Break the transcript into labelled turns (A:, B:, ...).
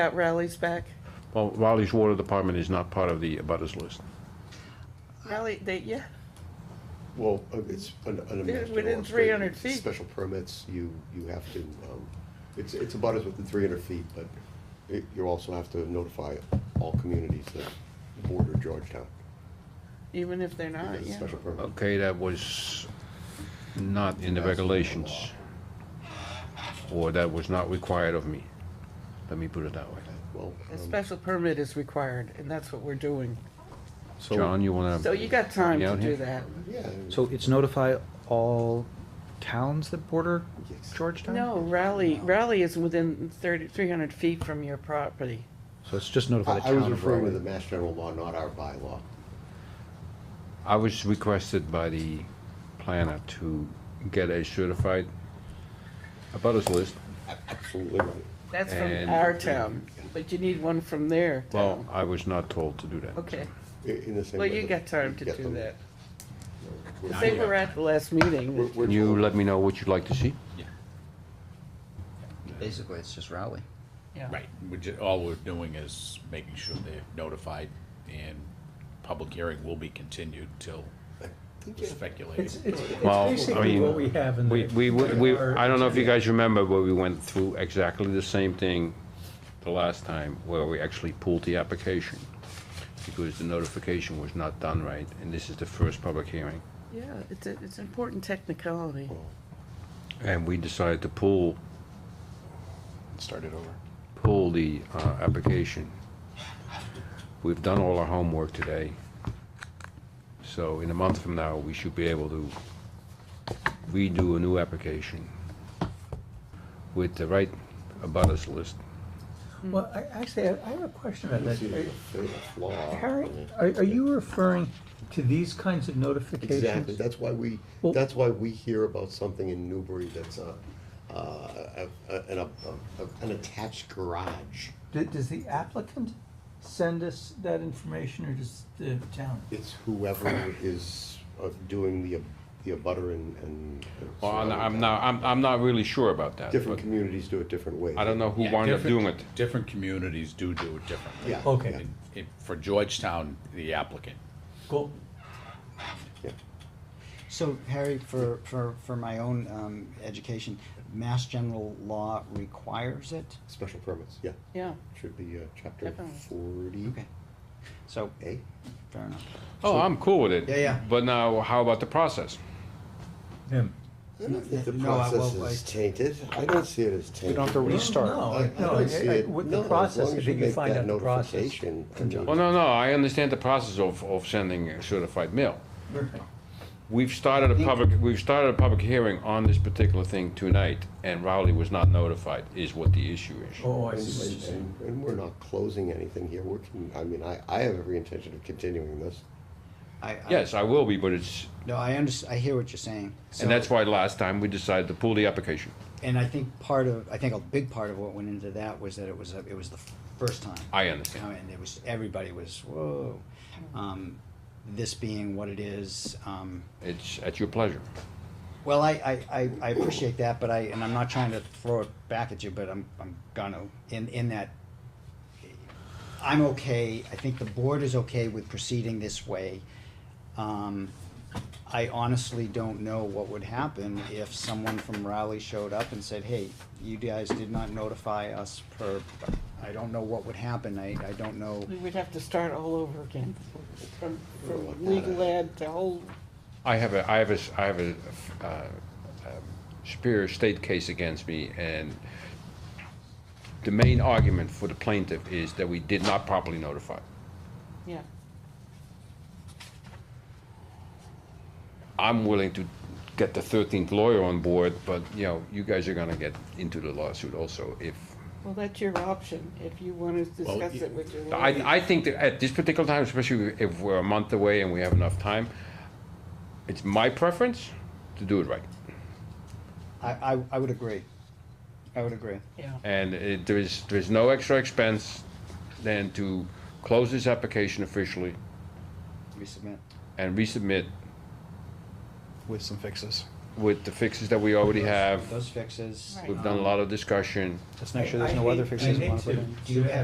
A: Got Rowley's back.
B: Well, Raleigh's Water Department is not part of the abutters list.
C: Uh,
A: Rowley, they, yeah,
C: Well, uh, it's an, an
A: They're
C: administrative.
A: within 300 feet.
C: Special permits, you, you have to, um, it's, it's about as within three hundred feet, but it, you also have to notify all communities that border Georgetown.
A: even if they're not,
C: It's a
A: Uh, yeah.
C: special permit.
B: Okay, that was not in the regulations. Or that was not required of me. Let me put it that way.
C: Well,
A: A
C: um,
A: special permit is required, and that's what we're doing.
B: John, you wanna?
A: So you got time
B: Yeah,
A: to
B: Um, here.
A: do that.
C: yeah,
D: So it's notify all towns that border
C: Yes.
D: Georgetown?
A: No, Rowley, Rowley is within thirty, three hundred feet from your property.
D: So it's just notify
C: I,
D: the
C: I
D: town
C: was
D: of
C: referring to
D: Raleigh.
C: the Mass General Law, not our bylaw.
B: I was requested by the planner to get a certified abutters list.
C: A- Absolutely right.
A: That's from
B: And-
A: our town, but you need one from their
B: Well,
A: town.
B: I was not told to do that.
A: Okay,
C: I- In the same
A: well,
C: way.
A: you
C: that
A: got time to
C: get
A: do
C: them.
A: that.
C: We're-
A: They were at the last
C: we're-
A: meeting.
C: we're
B: You
C: told-
B: let me know what you'd like to see?
E: Basically, it's just Rowley.
A: Yeah.
F: Right, we ju, all we're doing is making sure they're notified and public hearing will be continued till
G: It's,
F: speculated.
G: it's, it's
B: Well, I
G: basically
B: mean,
G: what we have in the.
B: We, we, we,
G: our
B: I don't know if you
G: agenda.
B: guys remember, but we went through exactly the same thing the last time, where we actually pulled the application, because the notification was not done right, and this is the first public hearing.
A: Yeah, it's, a- it's important technicality.
B: And we decided to pull,
F: Start it over.
B: pull the, uh, application. We've done all our homework today, so in a month from now, we should be able to redo a new application with the right abutters list.
G: Well, I, actually, I I have a question about
C: This
G: that.
C: is
G: Are-
C: a fatal law.
G: Harry, are, are you referring to these kinds of notifications?
C: Exactly, that's why we,
G: Well-
C: that's why we hear about something in Newbury that's a, uh, a, a- an, a, a- an attached garage.
G: D- Does the applicant send us that information or does the town?
C: It's whoever is uh, doing the, the abutter and, and.
B: Well, I'm, I'm not, I'm, I'm not really sure about that.
C: Different
B: but
C: communities do it different ways.
B: I don't know who
F: Yeah,
B: wound up
F: different-
B: doing it.
F: Different communities do do it differently.
C: Yeah.
G: Okay.
C: yeah,
F: And it- For Georgetown, the applicant,
G: Cool.
C: yeah.
E: So, Harry, for, for, for my own um, education, Mass General Law requires it.
C: Special permits, yeah,
A: Yeah,
C: should be, uh, chapter
A: Definitely.
C: forty.
E: Okay. So,
C: A,
E: fair enough.
B: Oh, I'm cool with it.
E: Yeah, yeah.
B: But now, how about the process?
G: Him.
C: I don't think the
E: No, I- well,
C: process is
E: I-
C: tainted, I don't see it as tainted.
E: We don't have to restart.
G: No,
C: I- I
G: no,
C: don't see
G: I- I-
C: it-
G: with
C: no,
G: the
C: as
G: process,
C: long as
G: that you
C: make
G: find
C: that
G: out the process.
C: notification, I mean,
B: Well, no, no, I understand the process of, of sending a certified mail. We've started a public, we've started a public hearing on this particular thing tonight, and Rowley was not notified, is what the issue is.
G: Oh, I see what you're
C: And,
G: saying.
C: and- and we're not closing anything here, we're, con- I mean, I, I have every intention of continuing this.
E: I, I,
B: Yes, I will be, but it's,
E: No, I under, I hear what you're saying. So-
B: and that's why last time we decided to pull the application.
E: And I think part of, I think a big part of what went into that was that it was, a, it was the first time.
B: I understand.
E: And it was, everybody was, whoa. Um, this being what it is, um,
B: It's at your pleasure.
E: Well, I, I, I, I appreciate that, but I, and I'm not trying to throw it back at you, but I'm, I'm gonna, in, in that, I'm okay, I think the board is okay with proceeding this way. Um, I honestly don't know what would happen if someone from Raleigh showed up and said, hey, you guys did not notify us per, I don't know what would happen, I, I don't know.
A: we would have to start all over again, from,
C: Well,
A: from legal ad to whole,
B: I have a, I have a, s- I have a, uh, um, superior state case against me, and the main argument for the plaintiff is that we did not properly notify.
A: yeah.
B: I'm willing to get the thirteenth lawyer on board, but, you know, you guys are gonna get into the lawsuit also if,
A: Well, that's your option, if you want to
F: Well,
A: discuss
F: y-
A: it with your lawyer.
B: I, I think that at this particular time, especially if we're a month away and we have enough time, it's my preference to do it right.
E: I, I, I would agree, I would agree.
A: Yeah.
B: And it, there is, there is no extra expense than to close this application officially
E: Resubmit
B: and resubmit
H: with some fixes.
B: with the fixes that we already have.
E: Those fixes.
B: We've done a lot of discussion.
A: Let's make sure there's no other fixes. we wanna put in.
E: Do you have